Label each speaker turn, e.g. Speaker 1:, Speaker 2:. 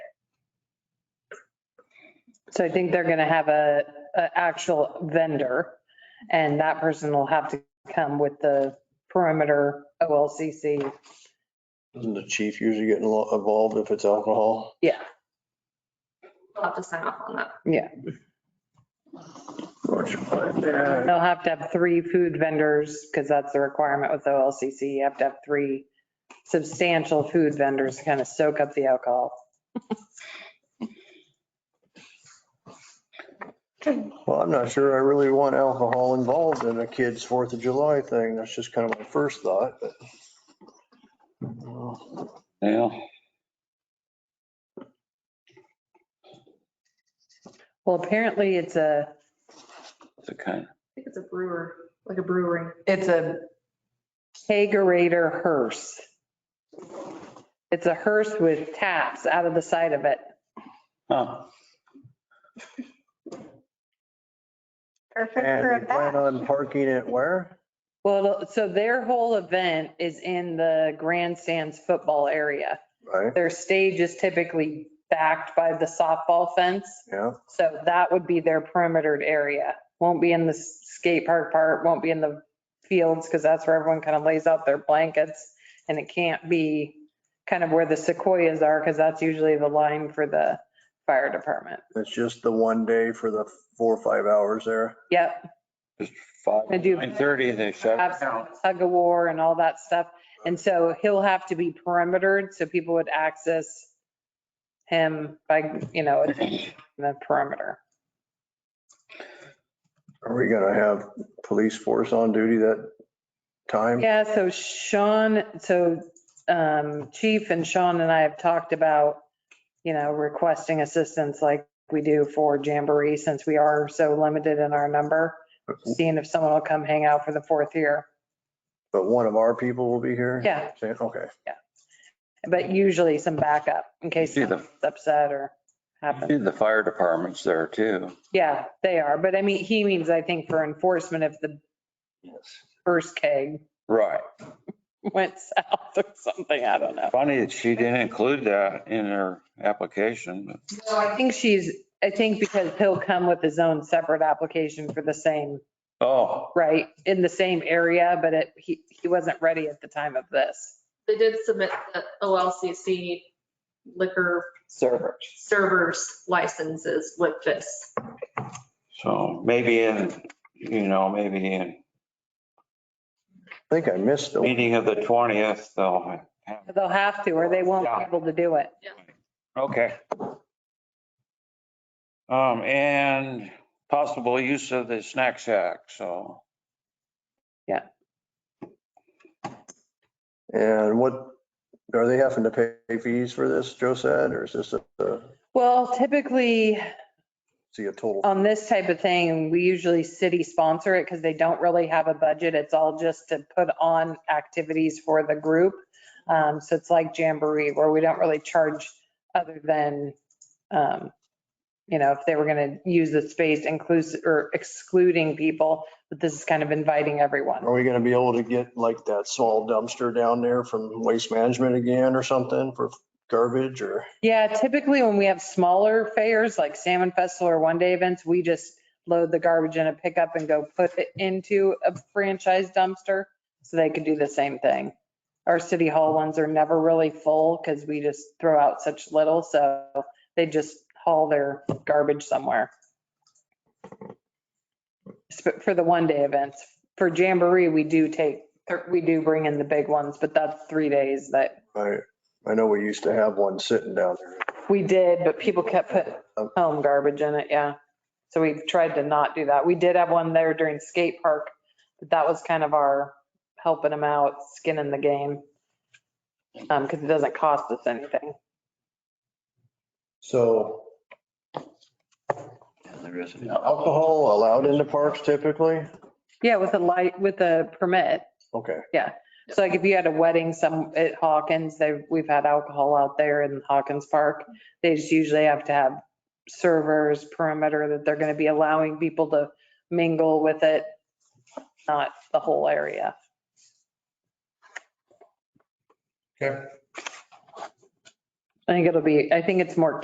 Speaker 1: So I think they're going to have a, a actual vendor and that person will have to come with the perimeter OLCC.
Speaker 2: Doesn't the chief usually get inlo- involved if it's alcohol?
Speaker 1: Yeah,
Speaker 3: We'll have to sign off on that.
Speaker 1: yeah. They'll have to have three food vendors because that's the requirement with OLCC. You have to have three substantial food vendors to kind of soak up the alcohol.
Speaker 2: Well, I'm not sure I really want alcohol involved in a kid's Fourth of July thing. That's just kind of my first thought. but-
Speaker 4: Yeah,
Speaker 1: Well, apparently it's a,
Speaker 4: it's a kind,
Speaker 3: I think it's a brewer, like a brewery.
Speaker 1: it's a kegerator hearse. It's a hearse with taps out of the side of it.
Speaker 4: huh,
Speaker 5: Perfect for a
Speaker 2: And you plan
Speaker 5: bath.
Speaker 2: on parking it where?
Speaker 1: Well, it'll- so their whole event is in the grandstands football area.
Speaker 2: Right,
Speaker 1: Their stage is typically backed by the softball fence.
Speaker 2: yeah.
Speaker 1: So that would be their perimetered area. Won't be in the skate park part, won't be in the fields because that's where everyone kind of lays out their blankets. And it can't be kind of where the sequoias are because that's usually the line for the fire department.
Speaker 2: It's just the one day for the four or five hours there.
Speaker 1: Yep,
Speaker 4: just five,
Speaker 1: I do-
Speaker 4: nine thirty, they shut it
Speaker 1: have
Speaker 4: down.
Speaker 1: tug of war and all that stuff. And so he'll have to be perimetered so people would access him by, you know, the perimeter.
Speaker 2: Are we gonna have police force on duty that time?
Speaker 1: Yeah, so Sean, so um, Chief and Sean and I have talked about, you know, requesting assistance like we do for Jamboree since we are so limited in our number, seeing if someone will come hang out for the fourth year.
Speaker 2: But one of our people will be here?
Speaker 1: Yeah.
Speaker 2: Saying, Okay.
Speaker 1: But usually some backup in case
Speaker 4: See the-
Speaker 1: someone's upset or happens.
Speaker 4: See, The fire department's there too.
Speaker 1: Yeah, they are. But I mean, he means, I think, for enforcement if the first keg
Speaker 4: Right.
Speaker 1: went south or something. I don't know.
Speaker 4: Funny that she didn't include that in her application, but
Speaker 1: No, I think she's, I think because he'll come with his own separate application for the same,
Speaker 4: Oh,
Speaker 1: right, in the same area, but it, he, he wasn't ready at the time of this.
Speaker 3: They did submit the OLCC liquor
Speaker 1: Server.
Speaker 3: servers licenses with this.
Speaker 4: so maybe in, you know, maybe in
Speaker 2: I think I missed the,
Speaker 4: meeting of the 20th, they'll have,
Speaker 1: They'll have to, or they won't be
Speaker 4: Yeah.
Speaker 1: able to do it.
Speaker 4: okay. Um, and possible use of the snack shack, so.
Speaker 2: and what, are they having to pay fees for this, Joe said, or is this a, a-
Speaker 1: Well, typically
Speaker 2: see a total?
Speaker 1: on this type of thing, we usually city sponsor it because they don't really have a budget. It's all just to put on activities for the group. Um, so it's like Jamboree where we don't really charge other than, um, you know, if they were going to use the space inclusive or excluding people, but this is kind of inviting everyone.
Speaker 2: Are we gonna be able to get like that small dumpster down there from Waste Management again or something for garbage or?
Speaker 1: Yeah, typically when we have smaller fairs like Salmon Festival or one day events, we just load the garbage in a pickup and go put it into a franchise dumpster. So they could do the same thing. Our city hall ones are never really full because we just throw out such little, so they just haul their garbage somewhere. Sp- For the one day events, for Jamboree, we do take, we do bring in the big ones, but that's three days that
Speaker 2: I, I know we used to have one sitting down there.
Speaker 1: we did, but people kept putting home garbage in it, yeah. So we tried to not do that. We did have one there during skate park, but that was kind of our helping them out, skin in the game. Um, because it doesn't cost us anything.
Speaker 2: So
Speaker 4: There isn't.
Speaker 2: alcohol allowed in the parks typically?
Speaker 1: Yeah, with a light, with a permit.
Speaker 2: Okay,
Speaker 1: So like if you had a wedding some, at Hawkins, they, we've had alcohol out there in Hawkins Park. They just usually have to have servers, perimeter, that they're gonna be allowing people to mingle with it, not the whole area.
Speaker 2: okay.
Speaker 1: I think it'll be, I think it's more